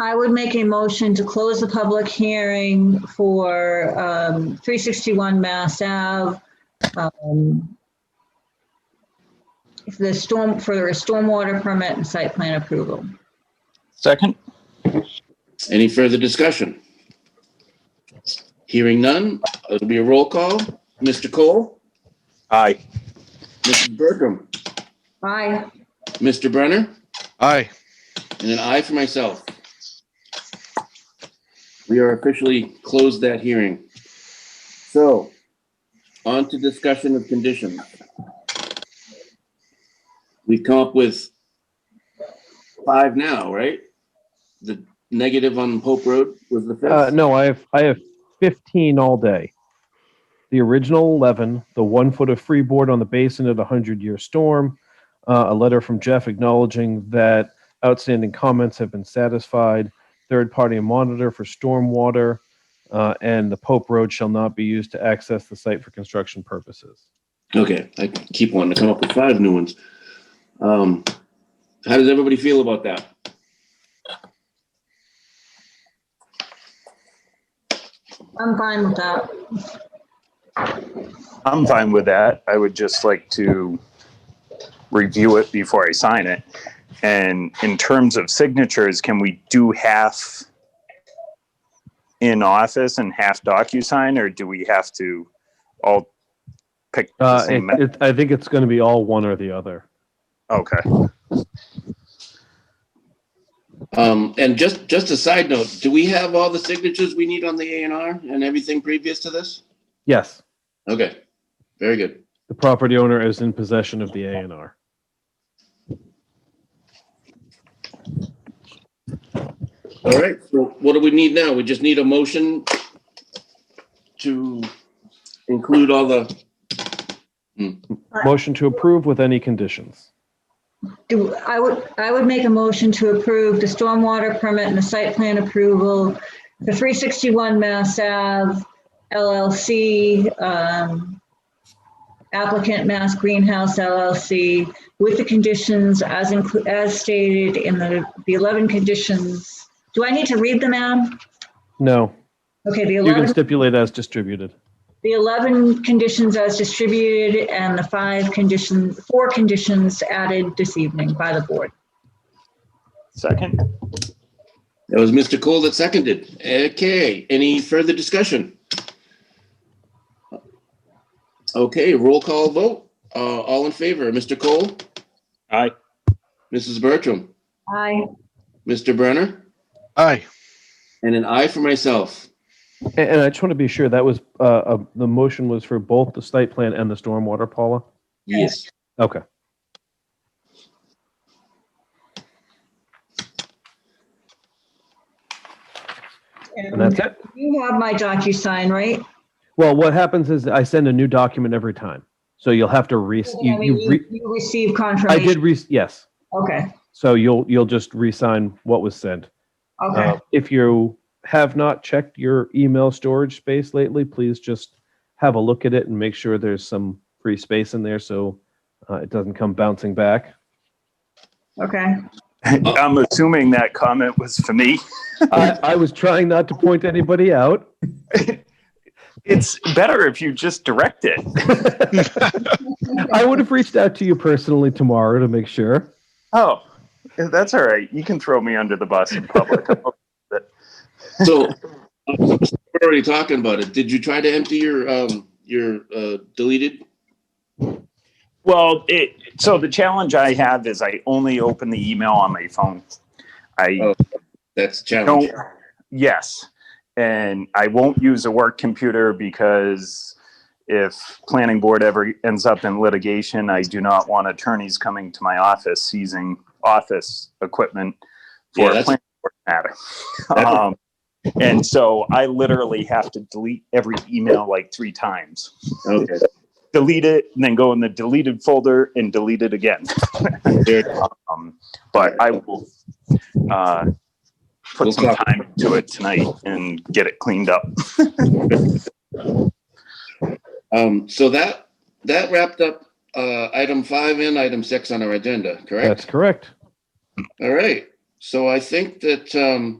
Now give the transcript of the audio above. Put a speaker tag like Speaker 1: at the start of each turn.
Speaker 1: I would make a motion to close the public hearing for um, 361 Mass Ave. um, for The storm, for a stormwater permit and site plan approval.
Speaker 2: Second?
Speaker 3: Any further discussion? Hearing none, it'll be a roll call. Mr. Cole,
Speaker 2: Aye.
Speaker 3: Mrs. Bertram,
Speaker 1: Aye.
Speaker 3: Mr. Brenner,
Speaker 4: Aye.
Speaker 3: and an aye for myself. We are officially closed that hearing. So, on to discussion of conditions. We've come up with five now, right? The negative on Hope Road was the fifth?
Speaker 5: Uh, no, I have I have 15 all day. The original 11, the one foot of freeboard on the basin of the 100 year storm, uh, a letter from Jeff acknowledging that outstanding comments have been satisfied, third party monitor for stormwater, uh, and the Pope Road shall not be used to access the site for construction purposes.
Speaker 3: Okay, I keep wanting to come up with five new ones. Um, how does everybody feel about that?
Speaker 1: I'm fine with that.
Speaker 2: I'm fine with that. I would just like to review it before I sign it. And in terms of signatures, can we do half in office and half DocuSign, or do we have to all pick the
Speaker 5: Uh, it,
Speaker 2: same?
Speaker 5: it, I think it's going to be all one or the other.
Speaker 2: Okay.
Speaker 3: Um, and just, just a side note, do we have all the signatures we need on the A and R and everything previous to this?
Speaker 5: Yes,
Speaker 3: Okay, very good.
Speaker 5: the property owner is in possession of the A&R.
Speaker 3: All right, so what do we need now? We just need a motion to include all the,
Speaker 5: Motion to approve with any conditions.
Speaker 1: Do, I would, I would make a motion to approve the stormwater permit and the site plan approval for 361 Mass Ave LLC, um, applicant Mass Greenhouse LLC, with the conditions as, inclu- as stated in the, the 11 conditions. Do I need to read them out?
Speaker 5: No,
Speaker 1: Okay, the
Speaker 5: You can
Speaker 1: 11,
Speaker 5: stipulate as distributed.
Speaker 1: the 11 conditions as distributed and the five conditions, four conditions added this evening by the board.
Speaker 2: Second?
Speaker 3: that was Mr. Cole that seconded. Okay, any further discussion? Okay, roll call vote. Uh, all in favor, Mr. Cole?
Speaker 2: Aye.
Speaker 3: Mrs. Bertram,
Speaker 1: Aye.
Speaker 3: Mr. Brenner,
Speaker 4: Aye.
Speaker 3: and an I for myself.
Speaker 5: A- And I just want to be sure that was, uh, uh, the motion was for both the site plan and the stormwater, Paula?
Speaker 3: Yes.
Speaker 5: Okay. And that's it?
Speaker 1: You have my DocuSign, right?
Speaker 5: Well, what happens is I send a new document every time. So you'll have to re,
Speaker 1: I
Speaker 5: you,
Speaker 1: mean,
Speaker 5: you, re-
Speaker 1: You received
Speaker 5: I did
Speaker 1: confirmation.
Speaker 5: Oh, re, yes.
Speaker 1: Okay,
Speaker 5: So you'll, you'll just re-sign what was sent.
Speaker 1: okay.
Speaker 5: Uh, If you have not checked your email storage space lately, please just have a look at it and make sure there's some free space in there so uh, it doesn't come bouncing back.
Speaker 1: Okay.
Speaker 2: I'm assuming that comment was for me.
Speaker 5: I, I was trying not to point anybody out.
Speaker 2: It's better if you just direct it.
Speaker 5: I would have reached out to you personally tomorrow to make sure.
Speaker 2: Oh, that's all right. You can throw me under the bus in public.
Speaker 3: So we're already talking about it. Did you try to empty your um your uh deleted?
Speaker 2: Well, it, so the challenge I have is I only open the email on my phone. I
Speaker 3: Oh, That's a
Speaker 2: don't,
Speaker 3: challenge.
Speaker 2: yes. And I won't use a work computer because if planning board ever ends up in litigation, I do not want attorneys coming to my office seizing office equipment
Speaker 3: Yeah,
Speaker 2: for a
Speaker 3: that's-
Speaker 2: planning board matter.
Speaker 3: That's-
Speaker 2: Um, and so I literally have to delete every email like three times.
Speaker 3: Okay.
Speaker 2: delete it and then go in the deleted folder and delete it again.
Speaker 3: There-
Speaker 2: Um, but I will uh,
Speaker 3: We'll
Speaker 2: put some
Speaker 3: talk.
Speaker 2: time to it tonight and get it cleaned up.
Speaker 3: Um, so that that wrapped up uh item five and item six on our agenda,
Speaker 5: That's
Speaker 3: correct?
Speaker 5: correct.
Speaker 3: All right. So I think that um